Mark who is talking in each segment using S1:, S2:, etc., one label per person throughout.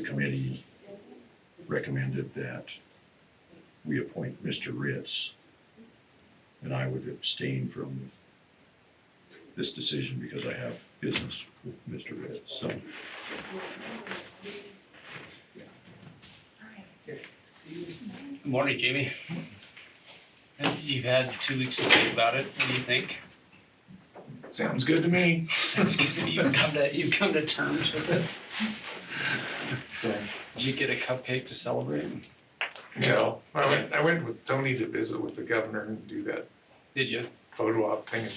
S1: The committee recommended that we appoint Mr. Ritz. And I would abstain from this decision because I have business with Mr. Ritz, so.
S2: Good morning, Jamie. Uh, You've had two weeks to think about it. What do you think?
S3: Sounds good to me.
S2: Sounds good to me. You've come to, you've come to terms with it.
S3: So,
S2: Did you get a cupcake to celebrate?
S3: no, I went, I went with Tony to visit with the governor and do that
S2: Did you?
S3: photo op thing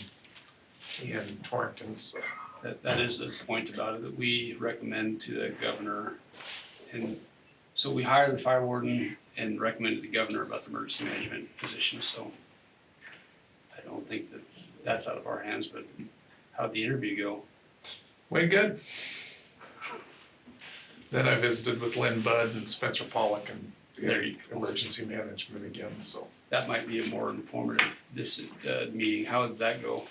S3: in, in Torrington, so.
S2: That, that is the point about it, that we recommend to the governor. And so we hired the fire warden and recommended to the governor about the emergency management position, so I don't think that that's out of our hands, but how'd the interview go?
S3: Went good. Then I visited with Lynn Budd and Spencer Pollock and
S2: There
S3: the
S2: you go.
S3: emergency management again, so.
S2: That might be a more informative, this, uh, meeting. How did that go?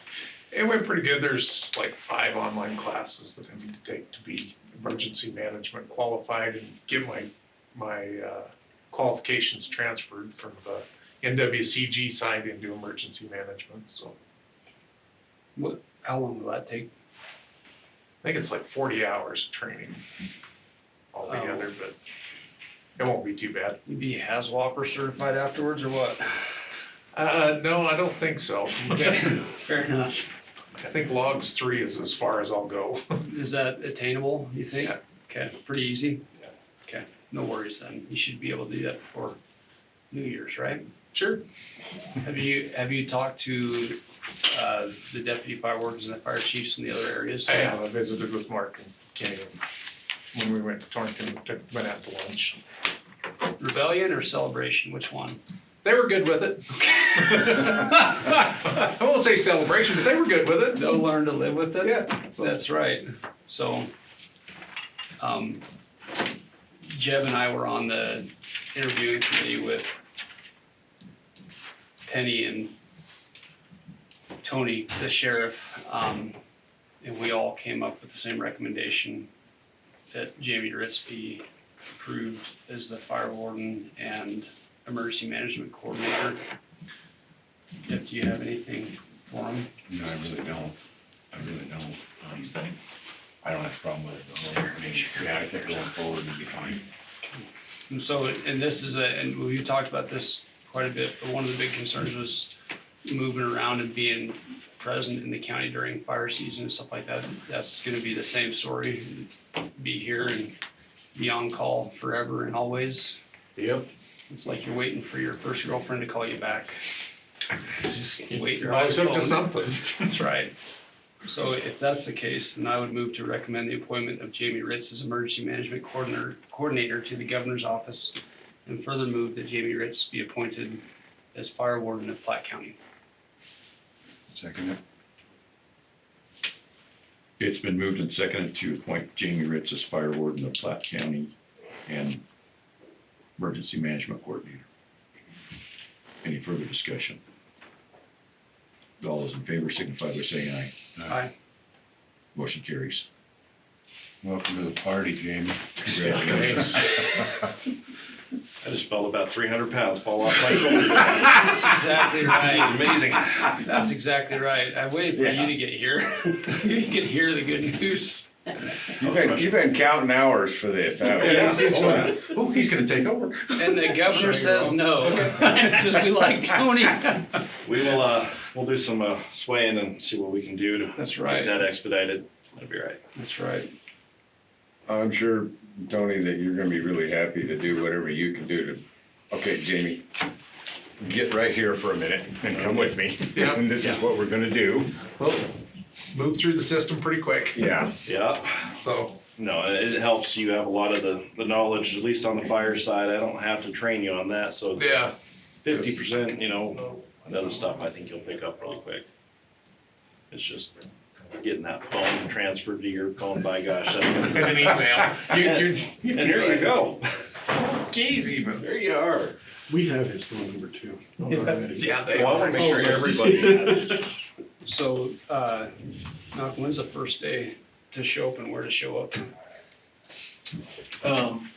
S3: It went pretty good. There's like five online classes that I need to take to be emergency management qualified and get my, my uh, qualifications transferred from the NWCG side into emergency management. So
S2: How long will that take?
S3: I think it's like forty hours of training altogether, but it won't be too bad.
S2: You be Haswalker certified afterwards or what?
S3: Uh, no, I don't think so. I
S2: Fair enough.
S3: think logs three is as far as I'll go.
S2: Is that attainable, you think?
S3: Yeah.
S2: Okay, pretty easy?
S3: Yeah.
S2: Okay, no worries then. You should be able to do that before New Year's, right?
S3: Sure.
S2: Have you, have you talked to, uh, the deputy fire wardens and the fire chiefs in the other areas?
S3: I have, I visited with Mark and Kenny when we went to Torrington, took- went out to lunch.
S2: Rebellion or celebration, which one?
S3: They were good with it. I won't say celebration, but they were good with it.
S2: They'll learn to live with it?
S3: Yeah. so-
S2: That's right. So, um, Jeb and I were on the interviewing committee with Penny and Tony, the sheriff, um, and we all came up with the same recommendation that Jamie Ritz be approved as the fire warden and emergency management coordinator. Jeb, do you have anything for him?
S4: No, I really don't. I really don't. Um, I don't have a problem with it. at all. I mean, yeah, I think going forward would be fine.
S2: And so, and this is a, and we've talked about this quite a bit, but one of the big concerns was moving around and being present in the county during fire season and stuff like that. That's gonna be the same story, be here and be on call forever and always.
S3: Yep.
S2: It's like you're waiting for your first girlfriend to call you back. Just wait your
S3: You're always up to
S2: phone.
S3: something.
S2: That's right. So if that's the case, then I would move to recommend the appointment of Jamie Ritz as Emergency Management Coordinator, Coordinator to the Governor's Office, and further move that Jamie Ritz be appointed as Fire Warden of Platte County.
S4: Second it.
S1: It's been moved and seconded to appoint Jamie Ritz as fire warden of Platte County and emergency management coordinator. Any further discussion? All those in favor signify by saying aye.
S2: Aye.
S1: Motion carries.
S4: Welcome to the party, Jamie.
S1: Congratulations.
S5: I just felt about 300 pounds fall off my shoulders.
S2: That's exactly
S5: It's
S2: right.
S5: amazing.
S2: That's exactly right. I waited for you to get here. You could hear the good news.
S6: You've been, you've been counting hours for this, haven't you?
S3: Yeah, he's- he's gonna- Oh, he's gonna take over.
S2: And the governor says no. Says we like Tony.
S5: We will, uh, we'll do some uh, swaying and see what we can do to
S2: That's
S5: get
S2: right.
S5: that expedited. That'd be right.
S2: That's right.
S6: I'm sure, Tony, that you're gonna be really happy to do whatever you can do to, okay, Jamie, get right here for a minute and come with me.
S3: Yeah.
S6: And this is what we're gonna do.
S3: Well, Moved through the system pretty quick,
S6: Yeah.
S5: Yeah.
S3: so.
S5: No, it it helps. You have a lot of the, the knowledge, at least on the fire side. I don't have to train you on that. So it's
S3: Yeah.
S5: 50%, you know, other stuff I think you'll pick up really quick. It's just getting that phone transferred to your phone. By gosh, that's gonna
S3: And an email. You, you,
S5: and there you go.
S3: keys even.
S5: There you are.
S7: We have his phone number too.
S3: Yeah,
S5: Well,
S3: they
S5: I want to make sure
S2: Oh, listen.
S5: everybody has it.
S2: So, uh, Malcolm, when's the first day to show up and where to show up?
S8: Um,